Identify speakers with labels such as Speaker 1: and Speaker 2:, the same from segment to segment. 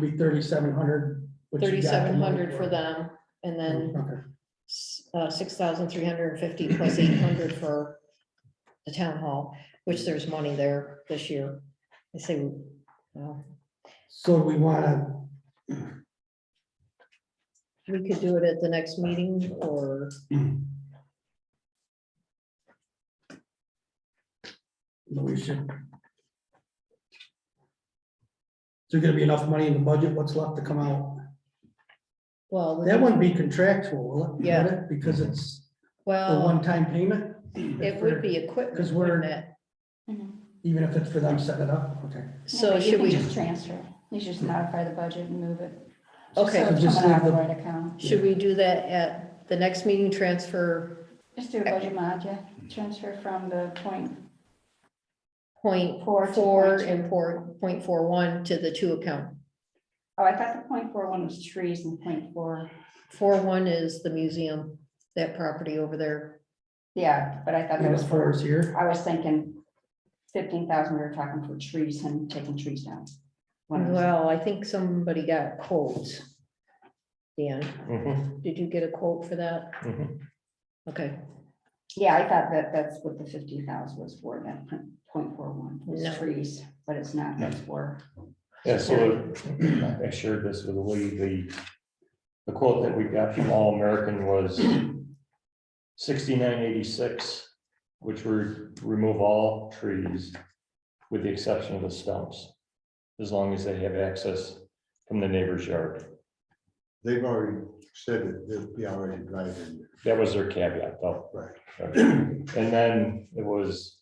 Speaker 1: be thirty-seven hundred.
Speaker 2: thirty-seven hundred for them, and then uh,
Speaker 1: Okay,
Speaker 2: six thousand three hundred and fifty plus eight hundred for the town hall, which there's money there this year. I say, well,
Speaker 1: so we wanna,
Speaker 2: we could do it at the next meeting or
Speaker 1: we should. Is there gonna be enough money in the budget, what's left to come out?
Speaker 2: Well,
Speaker 1: That wouldn't be contractual, will it?
Speaker 2: Yeah.
Speaker 1: Would it? Because it's a
Speaker 2: well,
Speaker 1: one-time payment?
Speaker 2: it would be equipment.
Speaker 1: 'Cause we're-
Speaker 2: wouldn't it?
Speaker 3: Mhm.
Speaker 1: Even if it's for them setting it up, okay.
Speaker 2: So
Speaker 3: Maybe you
Speaker 2: should
Speaker 3: can
Speaker 2: we, Hmm.
Speaker 3: Just transfer, you should just modify the budget and move it.
Speaker 2: Okay.
Speaker 3: So it's
Speaker 1: Just
Speaker 3: coming out
Speaker 1: leave
Speaker 3: of the
Speaker 1: the-
Speaker 3: right account,
Speaker 2: should we do that at the next meeting transfer
Speaker 3: just do a budget mod, yeah, transfer from the point,
Speaker 2: point
Speaker 3: Four to
Speaker 2: four
Speaker 3: point two.
Speaker 2: and four, point four one to the two account?
Speaker 3: oh, I thought the point four one was trees and point four,
Speaker 2: Four one is the museum, that property over there.
Speaker 3: yeah, but I thought that
Speaker 1: And
Speaker 3: was
Speaker 1: as far
Speaker 3: for,
Speaker 1: as here,
Speaker 3: I was thinking fifteen thousand, we were talking for trees and taking trees down. One of those.
Speaker 2: Well, I think somebody got quotes. Dan,
Speaker 4: Mhm,
Speaker 2: did you get a quote for that?
Speaker 1: Mm-hmm.
Speaker 4: mhm.
Speaker 2: Okay,
Speaker 3: Yeah, I thought that that's what the fifty thousand was for, that point four one,
Speaker 2: No.
Speaker 3: was trees, but it's not, that's for.
Speaker 4: Yeah, so I shared this with Lee, the, the quote that we got from All American was sixty-nine eighty-six, which would remove all trees with the exception of the stumps, as long as they have access from the neighbor's yard.
Speaker 5: They've already said that they'll be already driving.
Speaker 4: That was their caveat, though.
Speaker 5: Right.
Speaker 4: And then it was,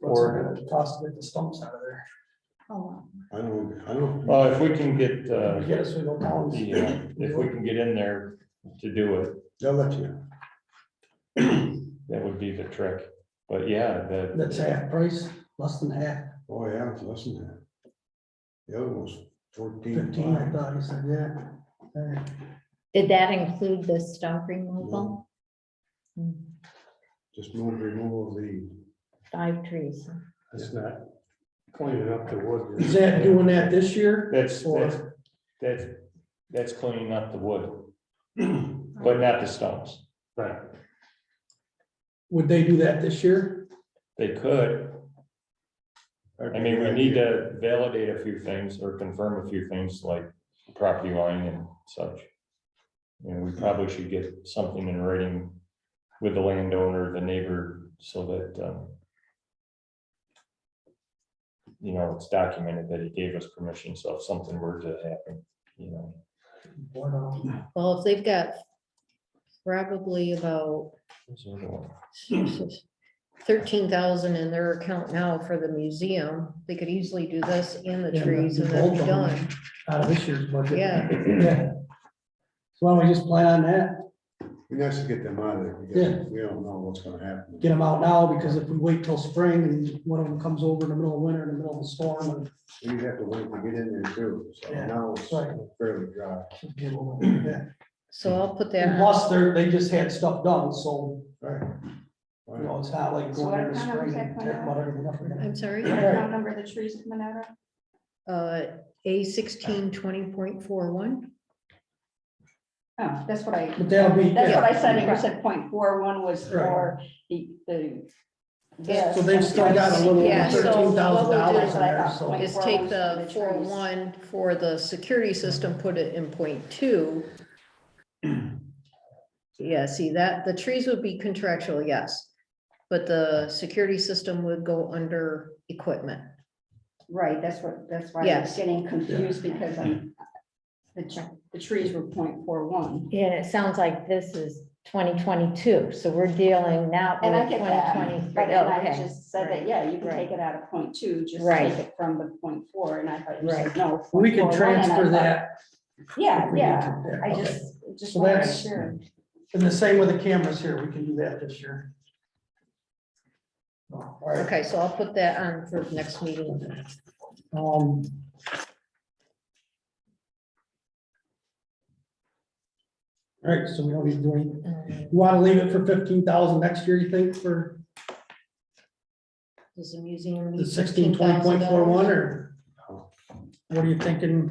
Speaker 1: what's
Speaker 4: Or-
Speaker 1: it gonna cost to get the stumps out of there?
Speaker 3: Oh, wow.
Speaker 5: I don't, I don't,
Speaker 4: well, if we can get, uh,
Speaker 1: Get us, we go down.
Speaker 4: the, uh, if we can get in there to do it,
Speaker 5: they'll let you.
Speaker 4: That would be the trick, but yeah, the,
Speaker 1: That's half price, less than half,
Speaker 5: Oh, yeah, it's less than that. The other one's fourteen.
Speaker 1: fifteen, I
Speaker 5: five.
Speaker 1: thought, you said, yeah. Uh, All right.
Speaker 6: Did that include the stump removal?
Speaker 5: No, Just move, remove the.
Speaker 6: Five trees.
Speaker 7: It's not cleaning up the wood.
Speaker 1: Is that doing that this year?
Speaker 4: that's, that's,
Speaker 1: Or-
Speaker 4: that's, that's cleaning up the wood. But not the stumps,
Speaker 7: Right.
Speaker 1: Would they do that this year?
Speaker 4: they could, I mean, we need to validate a few things or confirm a few things like property line and such. You know, we probably should get something in writing with the landowner, the neighbor, so that, um. You know, it's documented that he gave us permission, so if something were to happen, you know.
Speaker 1: Or no?
Speaker 2: well, if they've got probably about
Speaker 4: What's the other one?
Speaker 2: thirteen thousand in their account now for the museum, they could easily do this in the
Speaker 1: Yeah,
Speaker 2: trees
Speaker 1: the
Speaker 2: and then be
Speaker 1: bulb on.
Speaker 2: done.
Speaker 1: Out of this year's budget?
Speaker 2: Yeah.
Speaker 1: Yeah. So why don't we just plan on that,
Speaker 5: We have to get them out of there.
Speaker 1: Yeah.
Speaker 5: because We don't know what's gonna happen.
Speaker 1: get them out now, because if we wait till spring and one of them comes over in the middle of winter, in the middle of the storm, and
Speaker 5: We have to wait to get in there too. So
Speaker 1: Yeah.
Speaker 5: now it's
Speaker 1: Right.
Speaker 5: fairly dry.
Speaker 1: should be a little- yeah.
Speaker 2: So I'll put
Speaker 1: And
Speaker 2: that, on.
Speaker 1: Plus, they're, they just had stuff done, so,
Speaker 5: Right.
Speaker 1: you know, it's not like going into spring and tear about everything up again.
Speaker 2: I'm sorry,
Speaker 1: Yeah.
Speaker 3: Account number the trees coming out of?
Speaker 2: uh, A sixteen twenty point four one.
Speaker 3: Oh, that's what I,
Speaker 1: But that'll be,
Speaker 3: that's what
Speaker 1: yeah,
Speaker 3: I said, I said point four one was
Speaker 1: Right.
Speaker 3: for the, the.
Speaker 1: so they've still got a little
Speaker 2: Yeah, so what we'll
Speaker 1: thirteen
Speaker 2: do
Speaker 1: thousand dollars
Speaker 2: is
Speaker 1: in
Speaker 3: I
Speaker 1: there,
Speaker 3: thought,
Speaker 1: so.
Speaker 3: like-
Speaker 2: Is take the four one for the security system, put it in point two. Yeah, see that, the trees would be contractual, yes, but the security system would go under equipment.
Speaker 3: Right, that's what, that's why I was
Speaker 2: Yes.
Speaker 3: getting confused because I'm, the, tr- the trees were point four one.
Speaker 6: Yeah, and it sounds like this is twenty twenty-two, so we're dealing now.
Speaker 2: Oh,
Speaker 3: And I
Speaker 6: with
Speaker 3: get that,
Speaker 6: 2023.
Speaker 3: but then I
Speaker 6: Okay.
Speaker 3: just said that, yeah, you can take it out of point two, just
Speaker 6: Right.
Speaker 3: take it from the point four, and I thought you said
Speaker 6: Right.
Speaker 3: no.
Speaker 1: We can
Speaker 3: 0.41, and I
Speaker 1: transfer
Speaker 3: thought,
Speaker 1: that. if
Speaker 3: Yeah,
Speaker 1: we need
Speaker 3: yeah,
Speaker 1: to.
Speaker 3: I
Speaker 1: okay.
Speaker 3: just, just
Speaker 1: So
Speaker 3: wanted to
Speaker 1: that's-
Speaker 3: sure.
Speaker 1: And the same with the cameras here, we can do that this year. Oh, All right,
Speaker 2: Okay, so I'll put that on for next meeting.
Speaker 1: um. All right, so we don't need to do anything.
Speaker 2: Um,
Speaker 1: You wanna leave it for fifteen thousand next year, you think, for
Speaker 2: Does the museum?
Speaker 1: the
Speaker 2: need
Speaker 1: sixteen twenty point four one,
Speaker 2: $15,000?
Speaker 1: or? what are you thinking?